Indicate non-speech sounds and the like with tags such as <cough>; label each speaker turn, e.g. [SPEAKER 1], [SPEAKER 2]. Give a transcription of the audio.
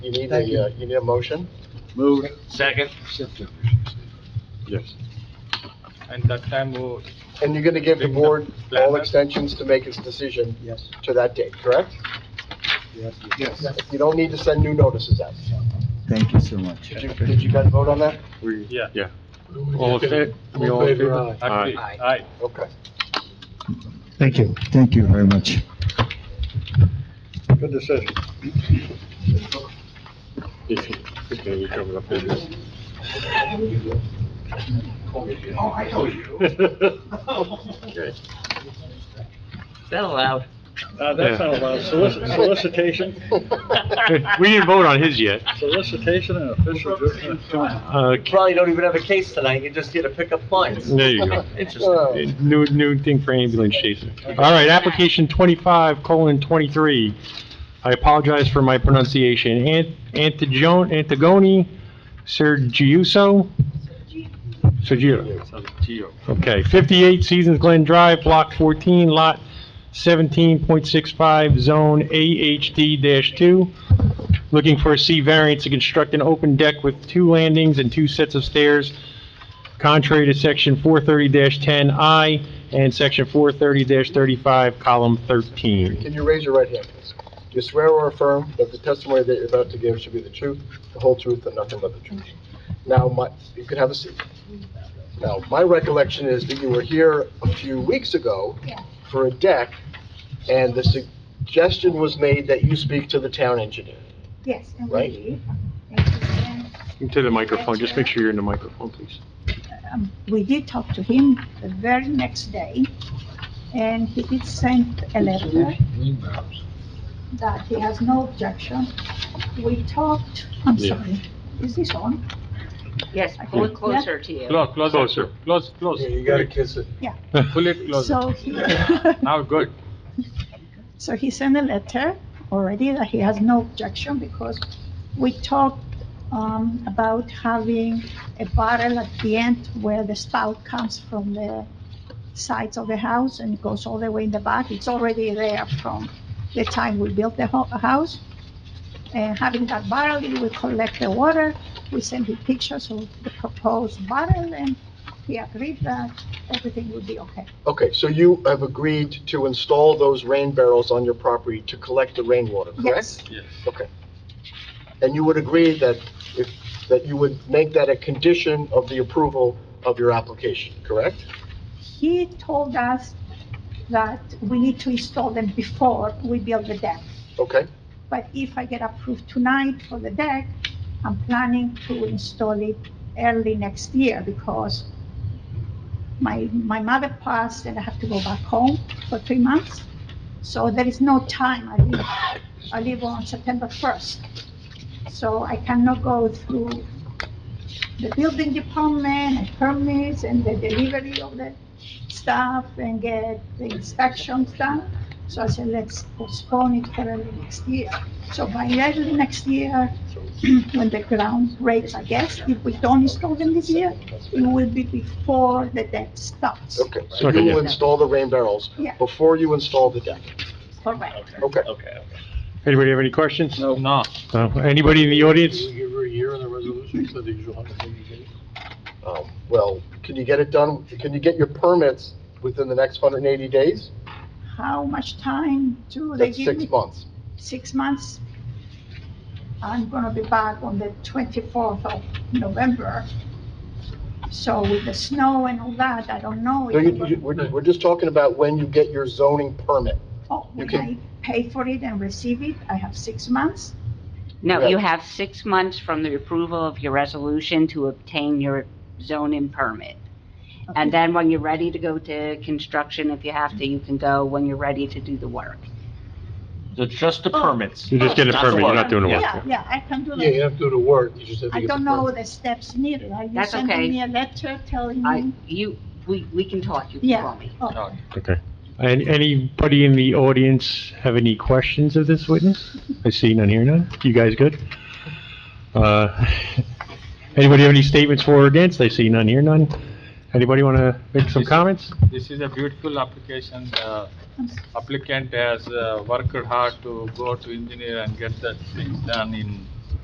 [SPEAKER 1] You need
[SPEAKER 2] Thank you.
[SPEAKER 1] a, uh, you need a motion?
[SPEAKER 3] Moved.
[SPEAKER 4] Second,
[SPEAKER 2] Accepted.
[SPEAKER 3] Yes.
[SPEAKER 4] and that time we'll,
[SPEAKER 1] And you're gonna give the board all
[SPEAKER 4] Planner?
[SPEAKER 1] extensions to make its decision
[SPEAKER 2] Yes,
[SPEAKER 1] to that date, correct?
[SPEAKER 2] yes.
[SPEAKER 3] Yes.
[SPEAKER 1] You don't need to send new notices out.
[SPEAKER 5] Thank you so much.
[SPEAKER 1] Did you, did you guys vote on that?
[SPEAKER 3] We,
[SPEAKER 4] Yeah.
[SPEAKER 3] yeah. All in fa- we all in favor?
[SPEAKER 4] agree,
[SPEAKER 3] Aye.
[SPEAKER 4] aye.
[SPEAKER 1] Okay.
[SPEAKER 5] Thank you. Thank you very much.
[SPEAKER 3] Good decision. If you, if you cover up business.
[SPEAKER 6] Oh, I know you.
[SPEAKER 3] Okay.
[SPEAKER 4] Is that allowed?
[SPEAKER 7] Uh, that's not allowed.
[SPEAKER 1] <laughs>
[SPEAKER 7] Solici- Solicitation,
[SPEAKER 3] <laughs> We didn't vote on his yet.
[SPEAKER 7] solicitation and official judgment.
[SPEAKER 3] Uh,
[SPEAKER 8] Probably don't even have a case tonight, you're just here to pick up clients.
[SPEAKER 3] There you go.
[SPEAKER 1] Uh,
[SPEAKER 3] New, new thing for ambulance chaser. All right, application twenty-five colon twenty-three. I apologize for my pronunciation. Ant, Antigone, Antigone Sergiuso? Sergio. Okay, fifty-eight Seasons Glen Drive, block fourteen, lot seventeen point six five, zone AHD two. Looking for a C variance to construct an open deck with two landings and two sets of stairs contrary to section 430-10I and section 430-35, column 13.
[SPEAKER 1] Can you raise your right hand, please? Do you swear or affirm that the testimony that you're about to give should be the truth, the whole truth, and nothing but the truth? Now, my, you can have a seat. Now, my recollection is that you were here a few weeks ago for a deck, and the suggestion was made that you speak to the town engineer.
[SPEAKER 9] Yes, and
[SPEAKER 1] Right.
[SPEAKER 9] we, did. And,
[SPEAKER 3] To the microphone, just make sure you're in the microphone, please.
[SPEAKER 9] um, we did talk to him the very next day, and he did send a letter that he has no objection. We talked, I'm
[SPEAKER 3] Yeah.
[SPEAKER 9] sorry, is this on?
[SPEAKER 6] Yes,
[SPEAKER 9] pull
[SPEAKER 6] pull
[SPEAKER 9] it
[SPEAKER 6] it
[SPEAKER 9] closer
[SPEAKER 6] closer to you.
[SPEAKER 4] Close, close,
[SPEAKER 3] Closer.
[SPEAKER 4] it. close, close.
[SPEAKER 1] kiss it.
[SPEAKER 4] Pull it closer.
[SPEAKER 9] So he, <laughs>
[SPEAKER 4] Now, good.
[SPEAKER 9] so he sent a letter already that he has no objection because we talked, um, about having a barrel at the end where the spout comes from the sides of the house and it goes all the way in the back. It's already there from the time we built the ho- house. And having that barrel, we collect the water, we send him pictures of the proposed barrel and he agreed that everything would be okay.
[SPEAKER 1] Okay, so you have agreed to install those rain barrels on your property to collect the rainwater, correct?
[SPEAKER 9] Yes,
[SPEAKER 1] Okay. And you would agree that if, that you would make that a condition of the approval of your application, correct?
[SPEAKER 9] he told us that we need to install them before we build the deck.
[SPEAKER 1] Okay,
[SPEAKER 9] But if I get approved tonight for the deck, I'm planning to install it early next year because my, my mother passed and I have to go back home for three months. So there is no time. I leave, I leave on September first. So I cannot go through the building department and permits and the delivery of the stuff and get the inspections done. So I said, let's postpone it for early next year. So by early next year, <clears throat> when the ground breaks, I guess, if we don't install them this year, it will be before the debt stops.
[SPEAKER 1] okay. So
[SPEAKER 3] Okay,
[SPEAKER 1] you will
[SPEAKER 3] yeah.
[SPEAKER 1] install the rain barrels
[SPEAKER 9] Yeah.
[SPEAKER 1] before you install the deck.
[SPEAKER 9] Correct.
[SPEAKER 1] Okay.
[SPEAKER 3] Anybody have any questions?
[SPEAKER 4] No. No.
[SPEAKER 3] No. Anybody in the audience?
[SPEAKER 7] Give her a year in the resolution, so that you'll have
[SPEAKER 1] Um, Well, can you get it done, can you get your permits within the next 180 days?
[SPEAKER 9] How much time do they
[SPEAKER 1] That's
[SPEAKER 9] give me?
[SPEAKER 1] six months.
[SPEAKER 9] Six months? I'm gonna be back on the twenty-fourth of November. So with the snow and all that, I don't know.
[SPEAKER 1] No,
[SPEAKER 9] if I'm
[SPEAKER 1] you-
[SPEAKER 9] gonna-
[SPEAKER 1] you- We're we're just talking about when you get your zoning permit.
[SPEAKER 9] Oh,
[SPEAKER 1] you
[SPEAKER 9] when
[SPEAKER 1] can-
[SPEAKER 9] I pay for it and receive it, I have six months?
[SPEAKER 6] No, you have six months from the approval of your resolution to obtain your zoning permit. And then when you're ready to go to construction, if you have to, you can go when you're ready to do the work.
[SPEAKER 8] So just the permits.
[SPEAKER 3] You just get a permit, you're not doing the
[SPEAKER 9] Yeah,
[SPEAKER 3] work.
[SPEAKER 9] yeah, I can do
[SPEAKER 7] Yeah, you
[SPEAKER 9] that.
[SPEAKER 7] have to do the work, you just have to
[SPEAKER 9] I
[SPEAKER 7] get the
[SPEAKER 9] don't know
[SPEAKER 7] permit.
[SPEAKER 9] the steps needed. Are you
[SPEAKER 6] That's okay.
[SPEAKER 9] sending me a letter telling
[SPEAKER 6] I,
[SPEAKER 9] me?
[SPEAKER 6] you, we, we can talk, you
[SPEAKER 9] Mm-hmm. Yeah.
[SPEAKER 6] can call me.
[SPEAKER 9] Oh,
[SPEAKER 3] Okay. And anybody in the audience have any questions of this witness? I see none here, none. You guys good? Uh, <laughs> Anybody have any statements for or against? I see none here, none. Anybody want to make some comments?
[SPEAKER 4] This is a beautiful application. Uh,
[SPEAKER 9] I'm s-
[SPEAKER 4] applicant has uh, worked hard to go to engineer and get the things done in